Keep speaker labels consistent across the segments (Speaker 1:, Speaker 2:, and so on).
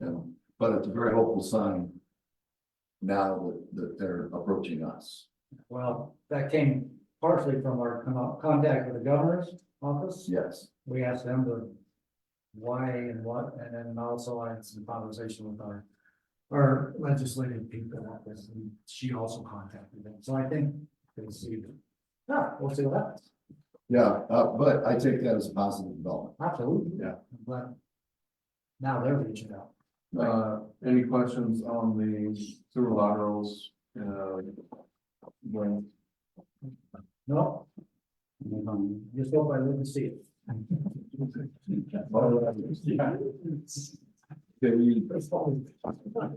Speaker 1: you know, but it's a very hopeful sign. Now that, that they're approaching us.
Speaker 2: Well, that came partially from our con- contact with the governor's office.
Speaker 1: Yes,
Speaker 2: We asked them the why and what, and then also I had some conversation with our, our legislative people at this, and she also contacted them. So I think they see it. Yeah, we'll see what happens.
Speaker 1: yeah, uh, but I take that as a positive development.
Speaker 2: Absolutely.
Speaker 1: Yeah.
Speaker 2: But now they're reaching out.
Speaker 3: Uh, any questions on the sewer laterals, uh? When,
Speaker 2: No? Just hope I live to see it.
Speaker 1: Okay, we,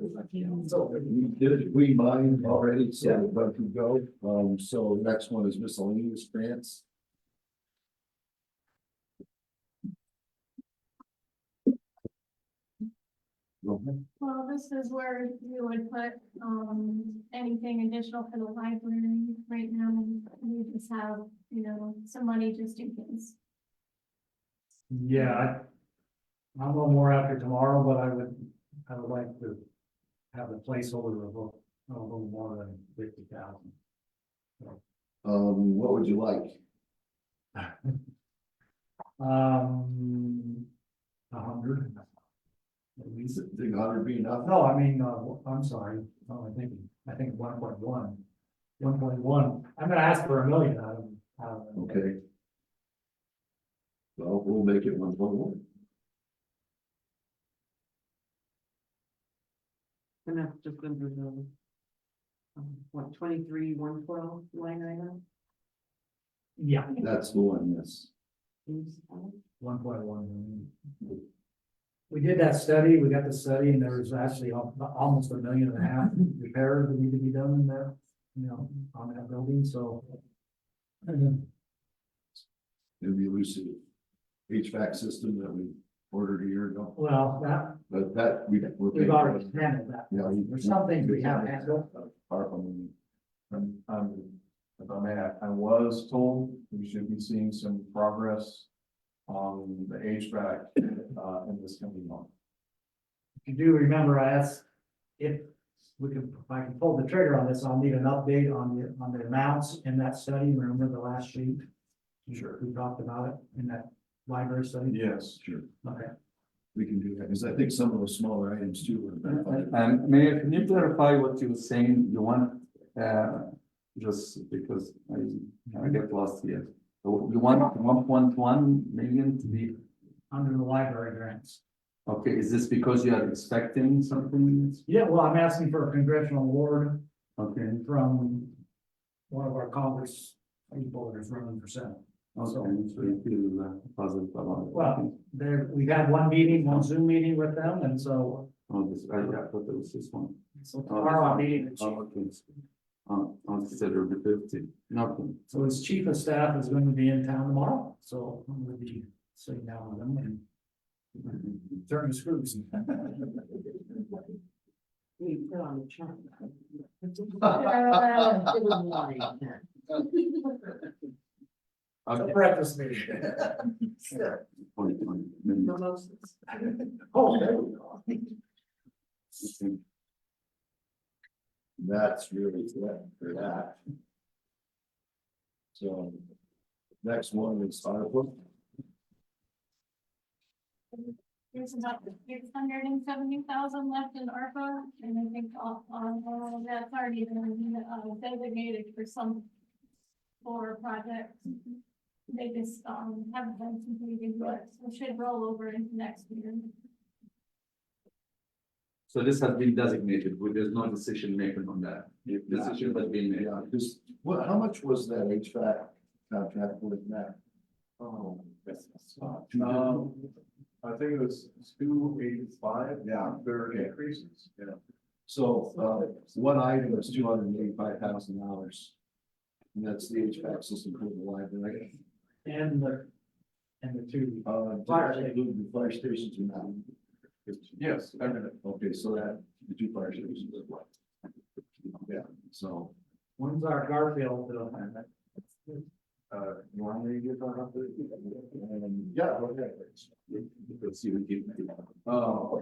Speaker 1: we did, we mine already, so we're about to go, um, so the next one is miscellaneous grants. Okay.
Speaker 4: Well, this is where you would put, um, anything additional for the library right now, we just have, you know, some money just in case.
Speaker 2: Yeah, I. I'm a little more after tomorrow, but I would, I would like to have a placeholder of a, a little more than fifty thousand.
Speaker 1: Um, what would you like?
Speaker 2: Um, a hundred. At least,
Speaker 1: Is it, think hundred be enough?
Speaker 2: no, I mean, uh, I'm sorry, no, I think, I think one point one. One point one, I'm gonna ask for a million out of, out of,
Speaker 1: Okay. Well, we'll make it one point one.
Speaker 5: And that's just under the. um, What, twenty-three, one twelve line item?
Speaker 2: yeah,
Speaker 1: That's the one, yes.
Speaker 5: is, um,
Speaker 2: one point one million. We did that study, we got the study, and there was actually al- almost a million and a half repairs that need to be done in that, you know, on that building, so.
Speaker 1: It'd be Lucid HVAC system that we ordered a year ago,
Speaker 2: Well, that,
Speaker 1: but that we. we're
Speaker 2: we've
Speaker 1: paying for
Speaker 2: already
Speaker 1: it.
Speaker 2: handled that,
Speaker 1: Yeah. we-
Speaker 2: there's some things we haven't handled.
Speaker 1: Our own.
Speaker 3: um, um, if I may, I- I was told we should be seeing some progress. On the HVAC, uh, in this coming month.
Speaker 2: If you do remember, I asked if we can, if I can pull the trigger on this, I'll need an update on the, on the amounts in that study, remember the last sheet? Sure. We talked about it in that library study,
Speaker 3: Yes.
Speaker 1: Sure,
Speaker 2: okay,
Speaker 1: we can do that, because I think some of the smaller items too. were identified.
Speaker 6: And Mayor, can you clarify what you were saying, you want, uh, just because I, I get lost here. So You want one point one million to be,
Speaker 2: under the library grants.
Speaker 6: okay, is this because you are expecting something?
Speaker 2: Yeah, well, I'm asking for a congressional award
Speaker 6: Okay,
Speaker 2: from one of our Congress people that is running for senate.
Speaker 6: okay, so you feel uh, positive about it.
Speaker 2: Well- There, we've had one meeting, one Zoom meeting with them, and so,
Speaker 6: Oh, this, I I thought it was this one.
Speaker 2: so tomorrow I'm meeting the chief.
Speaker 6: Oh, okay. Oh, I'll consider the fifty, nothing.
Speaker 2: So his chief of staff is going to be in town tomorrow, so I'm gonna be sitting down with him and
Speaker 6: Mm-hmm.
Speaker 2: turning screws.
Speaker 5: We put on the chart.
Speaker 4: Uh,
Speaker 5: It was line, yeah.
Speaker 2: A
Speaker 6: Okay,
Speaker 2: breakfast meeting.
Speaker 6: point one million.
Speaker 5: Mimosas.
Speaker 2: Oh, there we go.
Speaker 6: Okay.
Speaker 1: That's really it for that. So. Next one is ARPA.
Speaker 4: There's about six hundred and seventy thousand left in ARPA, and I think all, all of that's already been uh, designated for some for projects. They just, um, haven't been completed, but we should roll over into next year.
Speaker 6: So this has been designated, but there's no decision making on that. Decision has been made.
Speaker 1: Yeah, because what, how much was that HVAC contract with that?
Speaker 3: Oh, yes.
Speaker 1: Two different-
Speaker 3: Um, I think it was two eighty-five.
Speaker 1: Yeah.
Speaker 3: There are
Speaker 1: Yeah.
Speaker 3: increases, yeah.
Speaker 1: So, uh, one item is two hundred and eighty-five thousand dollars. And that's the HVAC system for the library.
Speaker 2: And the, and the two.
Speaker 1: Uh, did
Speaker 2: Fire
Speaker 1: I
Speaker 2: station.
Speaker 1: include the fire stations or not?
Speaker 3: Yes, I mean,
Speaker 1: Okay, so that, the two fire stations as well. Yeah, so,
Speaker 2: One's our Garfield bill.
Speaker 3: uh, you want me to get that up there?
Speaker 1: um, yeah, okay.
Speaker 6: Because you would give-
Speaker 1: Uh,
Speaker 3: Oh,